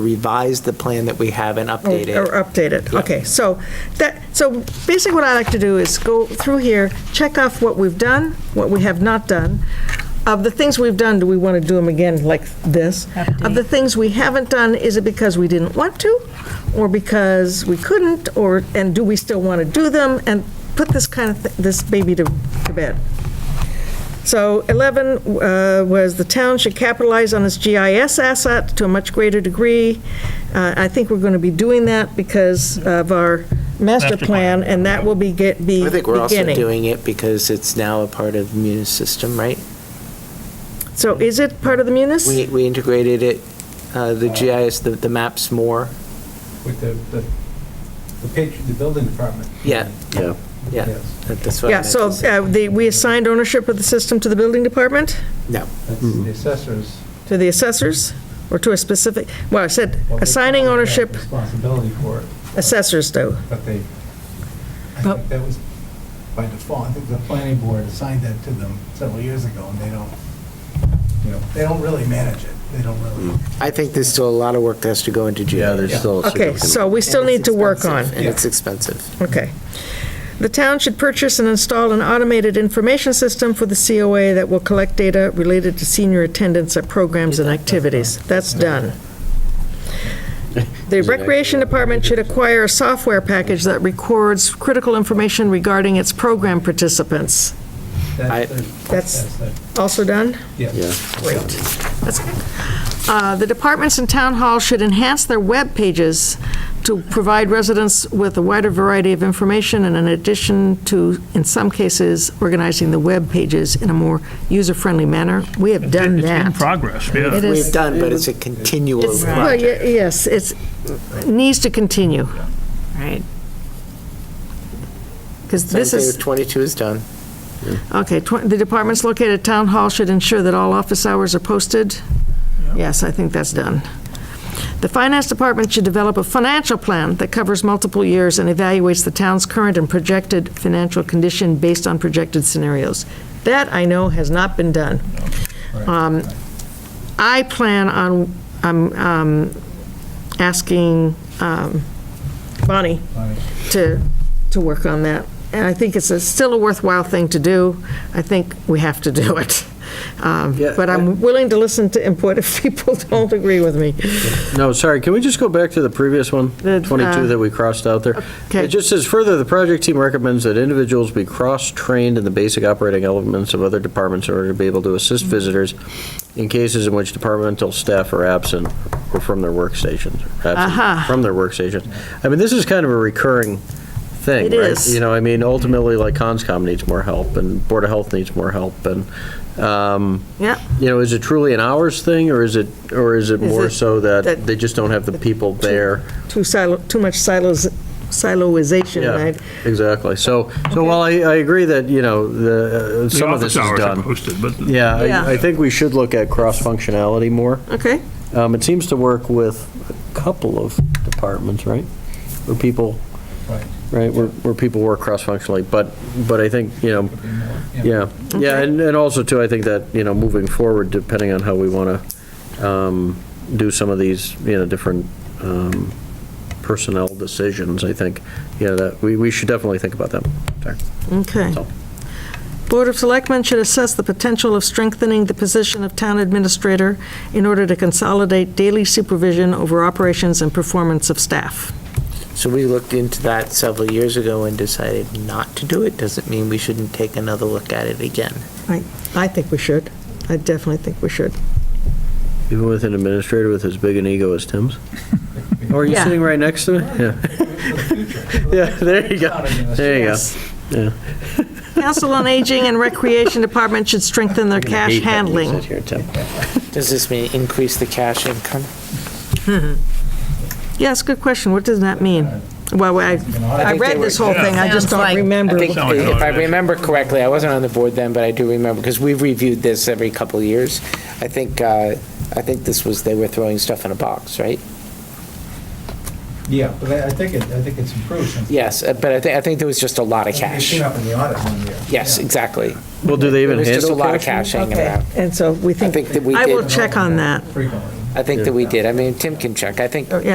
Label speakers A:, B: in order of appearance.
A: revise the plan that we have and
B: Or
A: update it.
B: Oh, or update it, okay. So that, so basically what I like to do is go through here, check off what we've done, what we have not done. Of the things we've done, do we want to do them again like this? Of the things we haven't done, is it because we didn't want to? Or because we couldn't, or, and do we still want to do them? And put this kind of, thi- this baby to to bed. So 11 uh, was the town should capitalize on its GIS asset to a much greater degree. Uh, I think we're going to be doing that because of our master
C: Master
B: plan,
C: plan.
B: and that will be get- be
A: I think we're also
B: beginning.
A: doing it because it's now a part of Munis system, right?
B: So is it part of the munis?
A: We, we integrated it, uh, the GIS, the, the maps more.
D: With the, the, the patron, the building department.
A: Yeah.
E: Yeah.
A: Yeah,
D: Yes.
A: that- that's what I
B: Yeah,
A: meant
B: so
A: to say.
B: uh, the- we assigned ownership of the system to the building department,
A: No,
D: That's
E: Mm-hmm.
D: the assessors.
B: to the assessors, or to a specific, well, I said
D: what they
B: assigning
D: call it, have
B: ownership,
D: Responsibility for it,
B: assessors do.
D: but they, I
F: But-
D: think that was by default, I think the planning board assigned that to them several years ago, and they don't, you know, they don't really manage it, they don't
E: Mm.
D: really.
A: I think there's still a lot of work that has to go into GIS.
E: Yeah, there's still. a
B: Okay,
E: significant-
B: so we still
A: And it's
B: need to work on.
A: expensive, And it's expensive.
B: Okay. The town should purchase and install an automated information system for the COA that will collect data related to senior attendance at programs and activities. That's done. The Recreation Department should acquire a software package that records critical information regarding its program participants.
A: I-
D: That's, the-
B: That's-
D: that's, the-
B: Also done?
D: yeah.
E: Yeah.
B: Great. That's Uh, The departments in town hall should enhance their web pages to provide residents with a wider variety of information, and in addition to, in some cases, organizing the web pages in a more user-friendly manner. We have done
C: It's in
B: that.
C: progress, yeah.
B: It is-
A: We've done, but it's a continual.
B: It's- well, ye- Yes, it's, needs to continue,
F: Right. Because
B: this is-
A: 22 is done.
B: Okay, tw- the departments located at Town Hall should ensure that all office hours are posted. Yes, I think that's done. The Finance Department should develop a financial plan that covers multiple years and evaluates the town's current and projected financial condition based on projected scenarios. That, I know, has not been done. Um, I plan on, I'm um, asking um, Bonnie
D: Bonnie.
B: to, to work on that. And I think it's a- still a worthwhile thing to do. I think we have to do it. Um,
E: Yeah,
B: But I'm willing to listen to input if people don't agree with me.
E: No, sorry, can we just go back to the previous one,
B: The,
E: 22
B: uh,
E: that we crossed out there?
B: okay.
E: It just says, "Further, the project team recommends that individuals be cross-trained in the basic operating elements of other departments in order to be able to assist
B: Mm-hmm.
E: visitors in cases in which departmental staff are absent or from their workstations." or absent
B: Aha.
E: From their workstations. I mean, this is kind of a recurring thing,
B: It
E: right?
B: is.
E: You know, I mean, ultimately, like, CONSCOM needs more help, and Board of Health needs more help, and, um,
B: Yeah,
E: you know, is it truly an hours thing, or is it, or is it more
B: it-
E: so
B: that-
E: that they just don't have the people there?
B: too silo, too much silos, siloization,
E: Yeah,
B: right?
E: exactly. So, so while I, I agree that, you know, the, uh,
C: The
E: some of this
C: office hours
E: is
C: are
E: done.
C: posted, but
E: Yeah,
B: Yeah.
E: I, I think we should look at cross-functionality more.
B: Okay,
E: Um, it seems to work with a couple of departments, right? Where people,
D: Right.
E: right, where, where people work cross-functionally, but, but I think, you know,
D: Could be more,
E: Yeah, yeah, and, and also too, I think that, you know, moving forward, depending on how we want to do some of these, you know, different um, personnel decisions, I think, you know, that, we, we should definitely think about that. Sorry.
B: okay.
E: That's all.
B: Board of Selectmen should assess the potential of strengthening the position of town administrator in order to consolidate daily supervision over operations and performance of staff.
A: So we looked into that several years ago and decided not to do it. Doesn't mean we shouldn't take another look at it again.
B: I, I think we should. I definitely think we should.
E: Even with an administrator with as big an ego as Tim's? Or Oh, are you
B: Yeah.
E: sitting right next to it? Yeah,
D: For the future.
E: yeah, there you go, there you go.
B: Yes.
E: Yeah.
B: Council on Aging and Recreation Department should strengthen their cash
E: Hate that you
B: handling.
E: sit here, Tim.
A: Does this mean increase the cash income?
B: Yes, good question. What does that mean? Well, I, I read this whole thing, I just don't
F: Sounds like-
B: remember.
A: I think,
C: Sounds like
A: if I
C: an
A: remember correctly, I wasn't on the board then, but I do remember, because we've reviewed this every couple of years. I think, uh, I think this was, they were throwing stuff in a box, right?
D: Yeah, but I I think it, I think it's improved since.
A: Yes, uh, but I think, I think there was just a lot of
D: It
A: cash.
D: came up in the audit one year.
A: Yes, exactly.
E: Well, do they even
A: There was just a
E: handle
A: lot of
E: cash?
A: cash hanging
B: Okay,
A: around.
B: and so we
A: I
B: think,
A: think that we
B: I will
A: did,
B: check on that.
D: Frequently.
A: I think that we did. I mean, Tim can check. I think
B: Oh, yeah.